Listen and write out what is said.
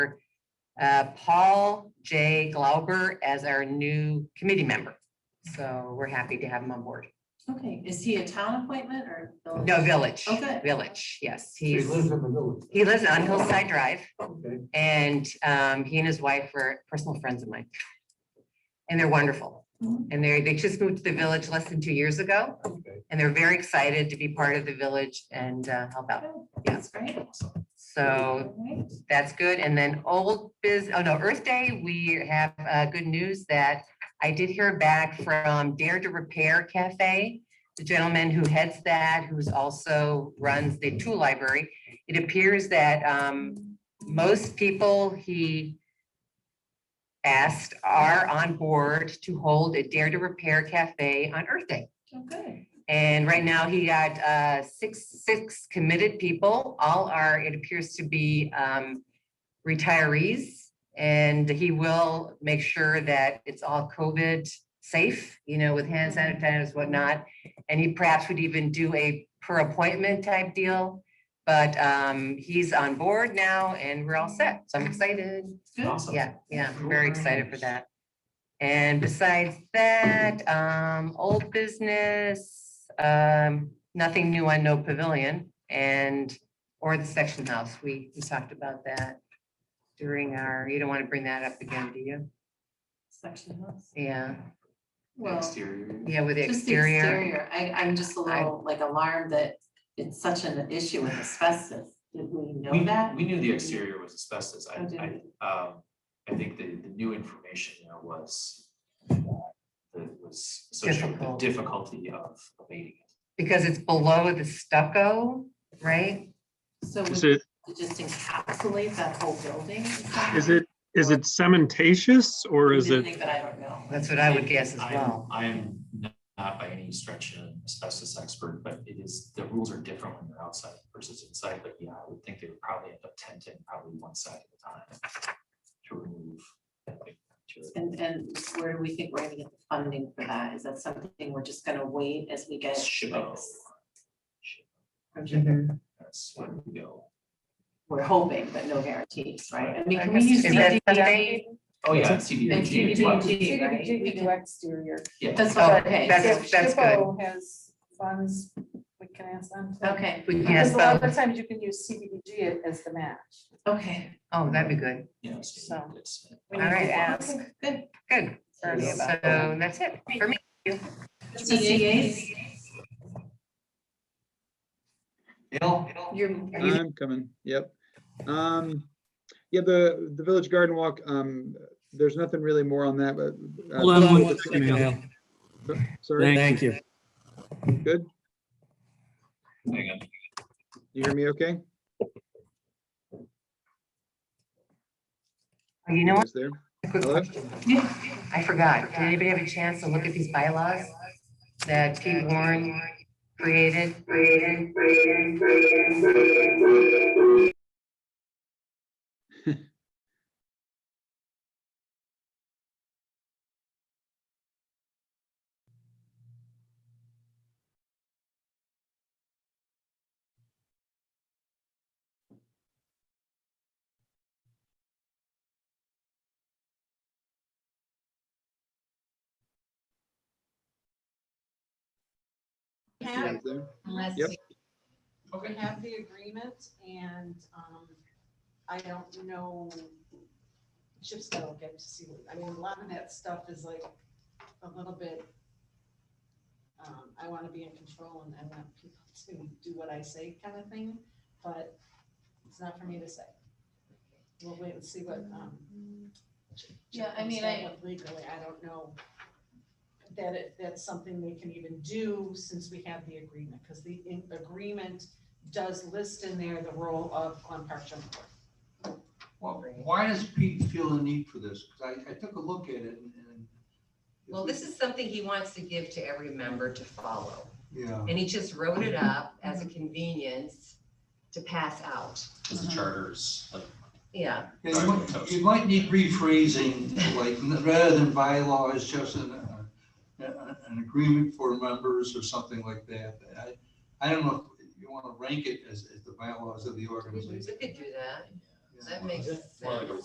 uh, Paul J. Glauber as our new committee member. So we're happy to have him on board. Okay, is he a town appointment or? village? No, Village. Okay. Village, yes. He He's, lives in the village. he lives on Hillside Drive Okay. and um, he and his wife are personal friends of mine. And they're wonderful. Mhm. And they, they just moved to the village less than two years ago Okay. and they're very excited to be part of the village and uh, help out. Okay, That's great. So All right. that's good. And then old biz, oh no, Earth Day, we have uh, good news that I did hear back from Dare to Repair Cafe, the gentleman who heads that, who's also runs the tool library. It appears that um, most people he asked are on board to hold a Dare to Repair Cafe on Earth Day. Oh, good. And right now he got uh six, six committed people. All are, it appears to be um retirees. And he will make sure that it's all COVID safe, you know, with hand sanitizers, whatnot. And he perhaps would even do a per appointment type deal. But um he's on board now and we're all set. So I'm excited. Good. Awesome. Yeah, yeah, I'm very excited for that. And besides that, um, old business, um, nothing new on No Pavilion and, or the section house. We, we talked about that during our, you don't want to bring that up again, do you? Section house. Yeah, Well, Exterior. yeah, with the just the exterior. exterior. I, I'm just a I- little like alarmed that it's such an issue with asbestos. Did we know We, that? we knew the exterior was asbestos. I, Oh, did I, um, I think the, the new information there was that was associated with the Difficult. difficulty of abating it. Because it's below the stucco, right? So Is would it, it just encapsulate that whole building? somehow? is it, is it cementatious or is Didn't it, think, But I don't know. That's what I would guess as I'm- well. I am not by any stretch an asbestos expert, but it is, the rules are different when you're outside versus inside, but yeah, I would think they would probably end up tenting probably one side at a time to remove. that big material. And, and where do we think we're gonna get the funding for that? Is that something we're just gonna wait as we get? So, like, from Japan? Mhm. That's where we go. we're hoping, but no guarantees, right? I mean, I can we guess- use Is that CDBG? something- Oh, yeah, And CDBG as well. CDBG, right? We CDBG do can- exterior. Yeah. That's Oh, what, okay, that's- If that's good. SHPO has funds, we can ask them. to- okay, We can Because ask a lot about, of times you can use CDBG as the match. okay. oh, that'd be good. Yeah. So- it's- We All need to right. Ask. Okay, Good. Good. So Sorry about that's it for me. The CAs, you're, are you, I'm coming, yep. Um, yeah, the, the Village Garden Walk, um, there's nothing really more on that, but. uh, Hold on one second, Al. Oh, Sorry, Thank you. good, Hang on. you hear me okay? You know what? Is there? Quick Hello? question. I forgot. Did anybody have a chance to look at these bylaws that Pete Warren created? Yeah, is there? unless Yep. we have the agreement and, um, I don't know. Chip's gotta look at it to see, what- I mean, a lot of that stuff is like a little bit, um, I wanna be in control and I want people to do what I say kind of thing, but it's not for me to say. We'll wait and see what, um. Chip Mm-hmm. Yeah, I comes mean, down I- with Legally, I don't know that it, that's something they can even do since we have the agreement, because the in- agreement does list in there the role of Glen Park Jungle Board. Well, why does Pete feel the need for this? Because I, I took a look at it and- and. Well, this is something he wants to give to every member to follow, Yeah. and he just wrote it up as a convenience to pass out. Because Uh-huh. the charters, like, Yeah, Yeah, You might- you might need rephrasing, like, rather than bylaws, just an, uh, an an agreement for members or something like that. I, I don't know if you want to rank it as, as the bylaws of the we organization. could do that. That Yeah. makes more like a sense.